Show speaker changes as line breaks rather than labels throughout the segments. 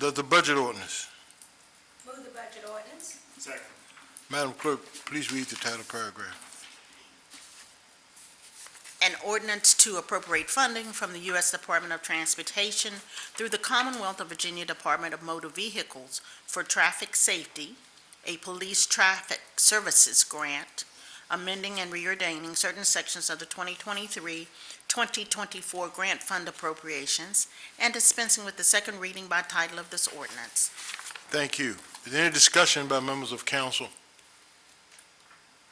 That's the budget ordinance.
Move the budget ordinance.
Second.
Madam Clerk, please read the title paragraph.
An ordinance to appropriate funding from the U.S. Department of Transportation through the Commonwealth of Virginia Department of Motor Vehicles for Traffic Safety, a Police Traffic Services Grant, amending and reordaining certain sections of the 2023-2024 grant fund appropriations, and dispensing with the second reading by title of this ordinance.
Thank you. Is there any discussion by members of council?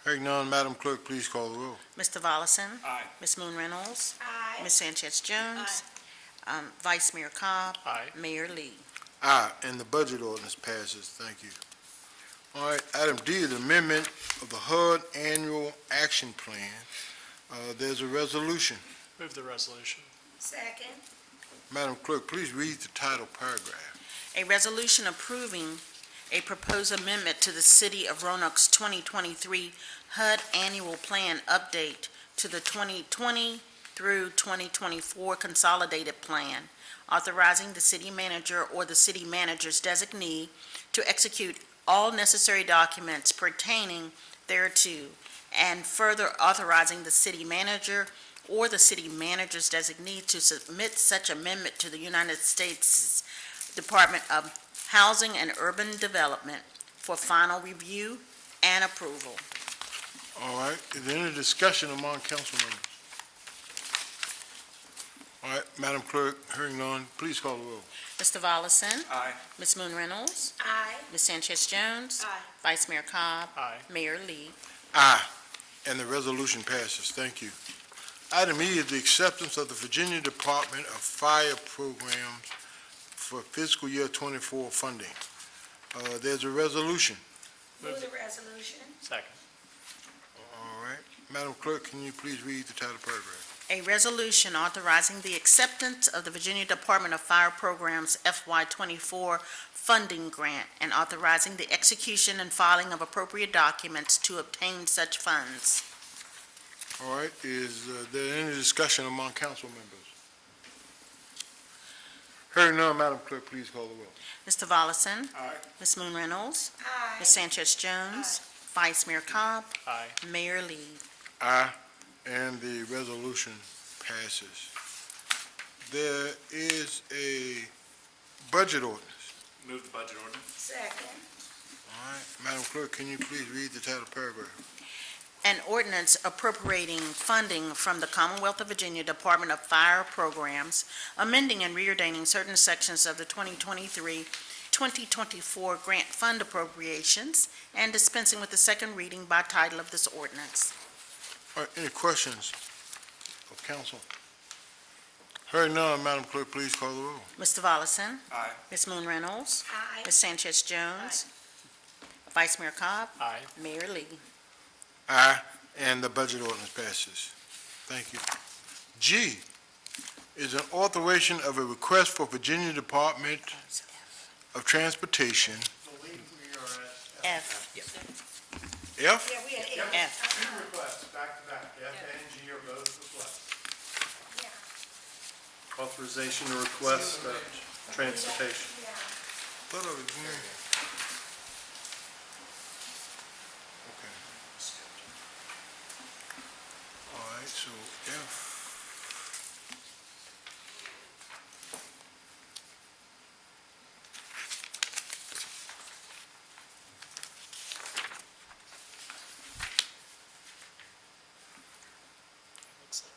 Hearing none, Madam Clerk, please call the roll.
Mr. Volleson?
Aye.
Ms. Moon Reynolds?
Aye.
Ms. Sanchez Jones? Um, Vice Mayor Cobb?
Aye.
Mayor Lee?
Aye, and the budget ordinance passes. Thank you. All right, item D is amendment of the HUD Annual Action Plan. Uh, There's a resolution.
Move the resolution.
Second.
Madam Clerk, please read the title paragraph.
A resolution approving a proposed amendment to the City of Roanoke's 2023 HUD Annual Plan Update to the 2020 through 2024 Consolidated Plan, authorizing the city manager or the city manager's designee to execute all necessary documents pertaining thereto, and further authorizing the city manager or the city manager's designee to submit such amendment to the United States Department of Housing and Urban Development for final review and approval.
All right, is there any discussion among council members? All right, Madam Clerk, hearing none, please call the roll.
Mr. Volleson?
Aye.
Ms. Moon Reynolds?
Aye.
Ms. Sanchez Jones?
Aye.
Vice Mayor Cobb?
Aye.
Mayor Lee?
Aye, Ah, and the resolution passes. Thank you. Item E is the acceptance of the Virginia Department of Fire Programs for fiscal year 24 funding. Uh, There's a resolution.
Move the resolution.
Second.
All right, Madam Clerk, can you please read the title paragraph?
A resolution authorizing the acceptance of the Virginia Department of Fire Programs FY24 funding grant and authorizing the execution and filing of appropriate documents to obtain such funds.
All right, is uh, there any discussion among council members? Hearing none, Madam Clerk, please call the roll.
Mr. Volleson?
Aye.
Ms. Moon Reynolds?
Aye.
Ms. Sanchez Jones? Vice Mayor Cobb?
Aye.
Mayor Lee.
Aye, and the resolution passes. There is a budget ordinance.
Move the budget ordinance.
Second.
All right, Madam Clerk, can you please read the title paragraph?
An ordinance appropriating funding from the Commonwealth of Virginia Department of Fire Programs, amending and reordaining certain sections of the 2023-2024 grant fund appropriations, and dispensing with the second reading by title of this ordinance.
All right, any questions of council? Hearing none, Madam Clerk, please call the roll.
Mr. Volleson?
Aye.
Ms. Moon Reynolds?
Aye.
Ms. Sanchez Jones? Vice Mayor Cobb?
Aye.
Mayor Lee.
Aye, and the budget ordinance passes. Thank you. G is an authorization of a request for Virginia Department of Transportation.
believe we are at
F,
F?
Yeah, we had eight.
F.
two requests back to back, F and G are both requests.
Yeah.
Authorization to request uh, transportation.
Yeah.
Thought I was hearing it. Okay. All right, so F.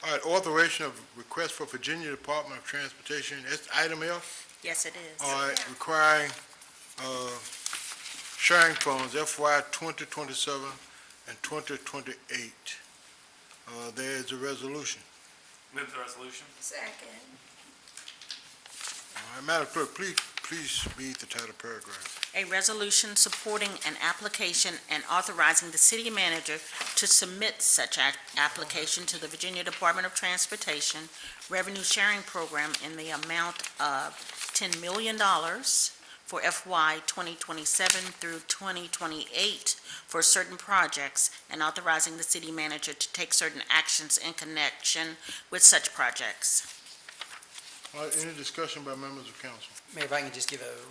All right, authorization of request for Virginia Department of Transportation, that's item F?
Yes, it is.
All right, requiring uh, sharing funds FY 2027 and 2028. Uh, There is a resolution.
Move the resolution.
Second.
All right, Madam Clerk, please, please read the title paragraph.
A resolution supporting an application and authorizing the city manager to submit such ac- application to the Virginia Department of Transportation Revenue Sharing Program in the amount of $10 million for FY 2027 through 2028 for certain projects, and authorizing the city manager to take certain actions in connection with such projects.
All right, any discussion by members of council?
Mayor, if I can just give a